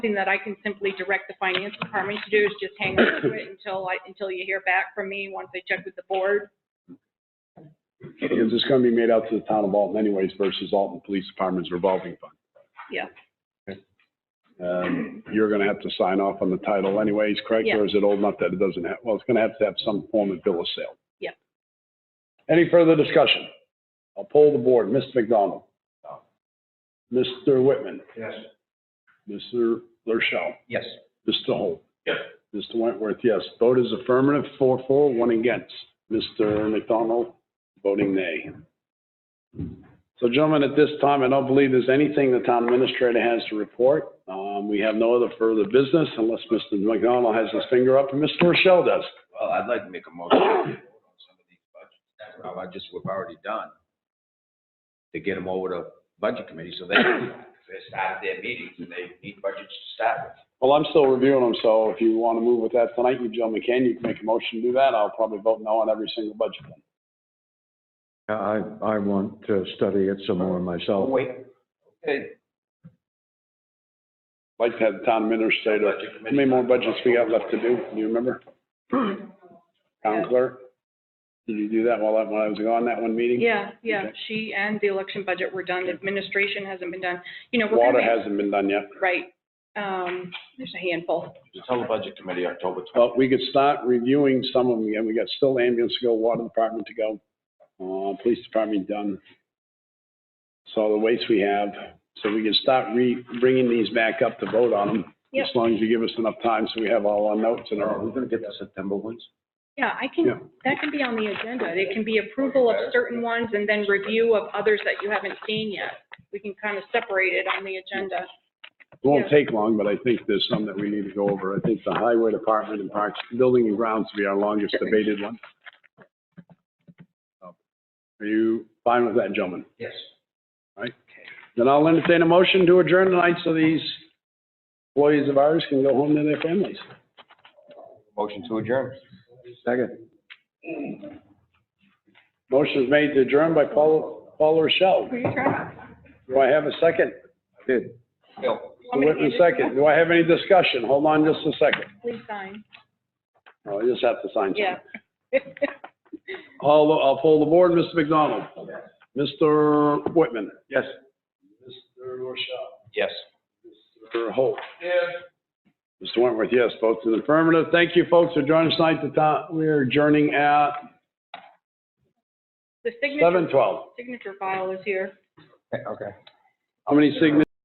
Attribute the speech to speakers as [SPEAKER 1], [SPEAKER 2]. [SPEAKER 1] something that I can simply direct the finance department to do is just hang on to it until I, until you hear back from me, once I check with the board.
[SPEAKER 2] Because it's gonna be made out to the town of Alton anyways versus Alton Police Department's revolving fund.
[SPEAKER 1] Yeah.
[SPEAKER 2] Um, you're gonna have to sign off on the title anyways, correct?
[SPEAKER 1] Yeah.
[SPEAKER 2] Or is it old enough that it doesn't have, well, it's gonna have to have some form of bill of sale.
[SPEAKER 1] Yeah.
[SPEAKER 2] Any further discussion? I'll poll the board. Mr. McDonald? Mr. Whitman?
[SPEAKER 3] Yes.
[SPEAKER 2] Mr. Rochelle?
[SPEAKER 3] Yes.
[SPEAKER 2] Mr. Holt?
[SPEAKER 3] Yes.
[SPEAKER 2] Mr. Wentworth, yes. Vote is affirmative, four for, one against. Mr. McDonald, voting nay. So gentlemen, at this time, I don't believe there's anything the town administrator has to report. Um, we have no other further business unless Mr. McDonald has his finger up and Mr. Rochelle does.
[SPEAKER 3] Well, I'd like to make a motion to vote on some of these budgets. That's how I just, we've already done. To get them over to budget committee so they, they started their meetings and they need budgets to start with.
[SPEAKER 2] Well, I'm still reviewing them, so if you want to move with that tonight, you gentlemen can, you can make a motion to do that. I'll probably vote no on every single budget.
[SPEAKER 4] I, I want to study it some more myself.
[SPEAKER 3] Oh, Wait. Okay,
[SPEAKER 2] I'd Like to have the town administrator,
[SPEAKER 3] budget
[SPEAKER 2] how
[SPEAKER 3] committee.
[SPEAKER 2] many more budgets we got left to do? Do you remember? Town clerk? Did you do that while I, when I was gone, that one meeting?
[SPEAKER 1] Yeah, yeah, she and the election budget were done, administration hasn't been done, you know, we're gonna
[SPEAKER 2] Water
[SPEAKER 1] make-
[SPEAKER 2] hasn't been done yet.
[SPEAKER 1] right, um, there's a handful.
[SPEAKER 3] Tell the budget committee October twelfth.
[SPEAKER 2] But we could start reviewing some of them again. We got still ambulance to go, water department to go, uh, police department done. So the waste we have, so we can start re, bringing these back up to vote on them.
[SPEAKER 1] Yep.
[SPEAKER 2] As long as you give us enough time so we have all our notes and
[SPEAKER 3] Are
[SPEAKER 2] our,
[SPEAKER 3] we gonna get the September ones?
[SPEAKER 1] Yeah, I
[SPEAKER 2] Yeah.
[SPEAKER 1] can, that can be on the agenda, it can be approval of certain ones and then review of others that you haven't seen yet. We can kind of separate it on the agenda.
[SPEAKER 2] it won't take long, but I think there's some that we need to go over. I think the highway department and parks, building and grounds will be our longest debated one. Are you fine with that, gentlemen?
[SPEAKER 3] Yes.
[SPEAKER 2] Then I'll entertain a motion to adjourn tonight so these employees of ours can go home to their families.
[SPEAKER 3] Motion to adjourn.
[SPEAKER 4] Second.
[SPEAKER 2] Motion is made to adjourn by Paul, Paul Rochelle.
[SPEAKER 1] Were you trying?
[SPEAKER 2] Do I have a second?
[SPEAKER 4] Good.
[SPEAKER 3] Bill.
[SPEAKER 1] Want me to
[SPEAKER 2] Whitman
[SPEAKER 1] hand it to you?
[SPEAKER 2] second. Do I have any discussion? Hold on just a second.
[SPEAKER 1] Please sign,
[SPEAKER 2] Oh, I just have to sign something.
[SPEAKER 1] yeah.
[SPEAKER 2] I'll, I'll poll the board. Mr. McDonald? Mr. Whitman?
[SPEAKER 3] Yes.
[SPEAKER 2] Mr. Rochelle?
[SPEAKER 3] Yes.
[SPEAKER 2] Mr. Holt?
[SPEAKER 3] Yes.
[SPEAKER 2] Mr. Wentworth, yes, votes in affirmative. Thank you, folks, for joining us tonight. The ti- We are adjourning at
[SPEAKER 1] The signature,
[SPEAKER 2] seven twelve.
[SPEAKER 1] signature file is here.
[SPEAKER 3] Okay.
[SPEAKER 2] How many signatures